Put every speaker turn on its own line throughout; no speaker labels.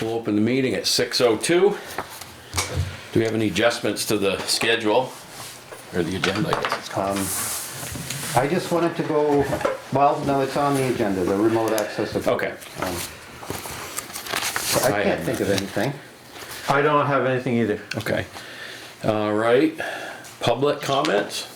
We'll open the meeting at 6:02. Do we have any adjustments to the schedule or the agenda, I guess? it's called?
I just wanted to go, well, no, it's on the agenda, the remote access. of-
Okay.
Um,
I
I can't
have
think of anything.
I don't have anything either.
Okay. All right, public comments?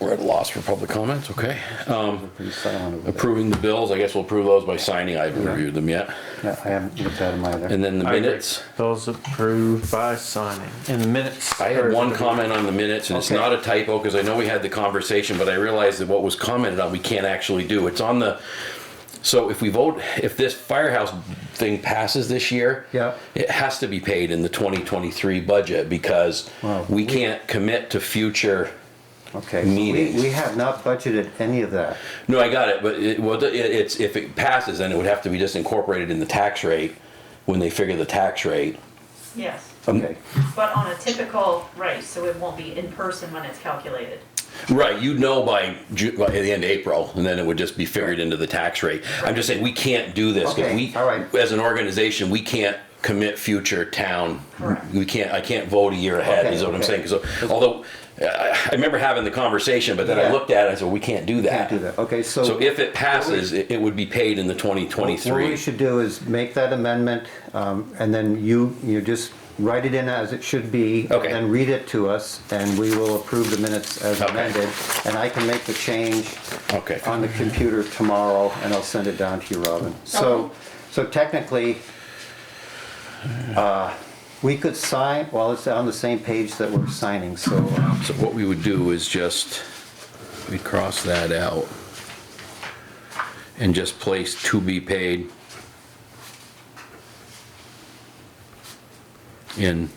We're at a loss for public comments, okay. Um,
Pretty silent over there.
Approving the bills, I guess we'll approve those by signing. I haven't reviewed them yet.
Yeah, I haven't looked at them either.
And then the
I agree.
minutes.
Those approved by signing. In the minutes.
I had one comment on the minutes, and it's
Okay.
not a typo, because I know we had the conversation, but I realized that what was commented on, we can't actually do. It's on the, so if we vote, if this firehouse thing passes this year.
Yeah.
It has to be paid in the twenty twenty-three budget, because
Wow.
we can't commit to future,
Okay, so we,
meetings.
we have not budgeted any of that.
no, I got it, but it, well, it- it's, if it passes, then it would have to be just incorporated in the tax rate, when they figure the tax rate.
Yes,
Um,
Okay,
but on a typical, right, so it won't be in person when it's calculated.
Right, you'd know by, Ju- by the end of April, and then it would just be figured into the tax rate. I'm just saying, we can't do this, because
Okay,
we,
all right.
as an organization, we can't commit future town.
Correct.
We can't, I can't vote a year ahead,
Okay,
is what I'm saying,
okay.
'cause uh, although, I, I remember having the conversation, but then I
Yeah.
looked at it, I said, we can't do
can't
that.
do that. Okay, so.
So if it passes, it, it would be paid in the twenty
What we
twenty-three.
should do is make that amendment, um, and then you, you just write it in as it should be.
Okay.
And read it to us, and we will approve the minutes as
Okay.
amended. And I can make the change
Okay,
on the computer tomorrow, and I'll send it down to you, Robin. So,
Okay.
so technically, uh, we could sign, well, it's on the same page that we're signing, so. um,
so what we would do is just, we cross that out. And just place to be paid. in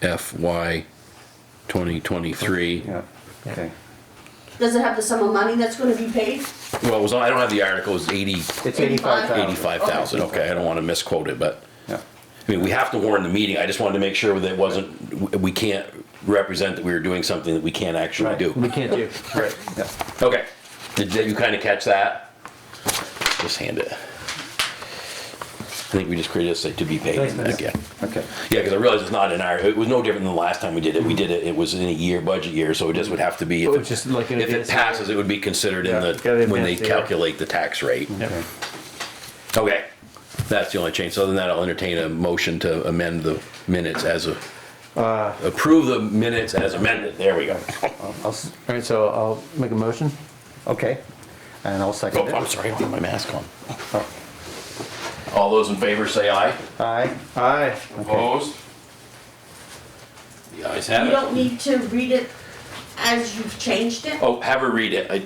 FY 2023.
Yeah, okay.
Does it have the sum of money that's gonna be paid?
Well, it was, I don't have the article, it's 80,
It's
Eighty-five.
85,000.
85,000, okay, I don't want to misquote it, but,
Yeah.
I mean, we have to warn the meeting, I just wanted to make sure that it wasn't, we- we can't represent that we were doing something that we can't actually
Right.
do.
We can't do.
Right.
Yeah.
Okay, did did you kind of catch that? Just hand it. I think we just created a say to be paid in that again.
Okay,
Yeah, because I realize it's not in our, it was no different than the last time we did it. We did it, it was in a year, budget year, so it just would have to be. if
Oh,
it-
just like in
If it
advance.
passes, it would be considered in
Yeah, gotta
the,
be
when they
advanced, yeah.
calculate the tax rate.
okay.
Okay, that's the only change. So other than that, I'll entertain a motion to amend the minutes as a,
Uh.
approve the minutes as amended. There we go.
I'll- I'll s-
All right, so I'll make a motion.
Okay, and I'll second
Oh,
it.
I'm sorry, I don't have my mask on. All those in favor say aye.
Aye.
Aye.
Opposed? The ayes have
You
it.
don't need to read it as you've changed it?
Oh, have her read it. I-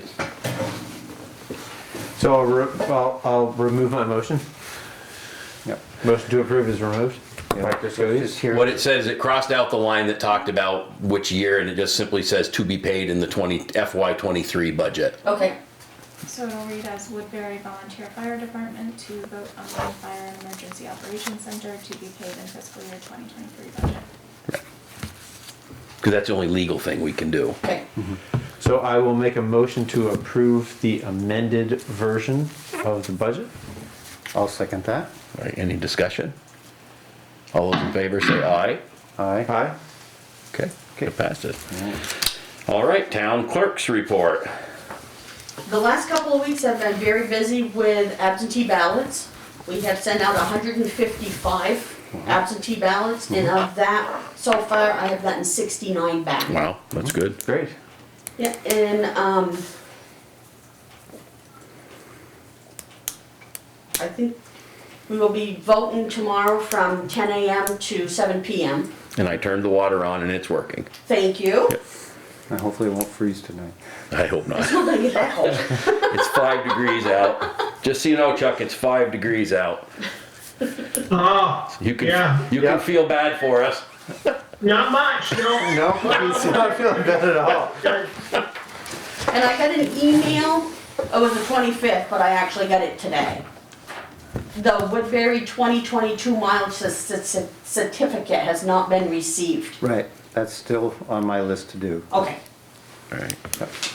So I'll, re- I'll, I'll remove my motion.
Yep.
Motion to approve is removed. Practice goes.
Just here.
What it says, it crossed out the line that talked about which year, and it just simply says to be paid in the 20, FY '23 budget.
Okay.
So it'll read as Woodbury Volunteer Fire Department to vote on the Fire and Emergency Operations Center to be paid in fiscal year 2023 budget.
Because that's the only legal thing we can do.
Okay.
So I will make a motion to approve the amended version of the budget.
I'll second that.
All right, any discussion? All those in favor say aye.
Aye.
Aye.
Okay, it passed it. All right, town clerk's report.
The last couple of weeks have been very busy with absentee ballots. We have sent out hundred and fifty-five absentee ballots, and of that, so far, I have gotten sixty-nine back.
Wow, that's good.
Great.
Yeah, and, um, I think we will be voting tomorrow from ten AM to seven PM.
And I turned the water on and it's working.
Thank you.
And hopefully it won't freeze tonight.
I hope not.
I'm gonna get that whole.
It's five degrees out. Just so you know, Chuck, it's five degrees out.
Oh,
You can,
Yeah.
you can feel bad for us.
not much, no.
No, it's not feeling bad at all.
And I got an email, it was the 25th, but I actually got it today. The Woodbury 2022 mileage cer- cer- cer- certificate has not been received.
Right, that's still on my list to do.
Okay,
All right.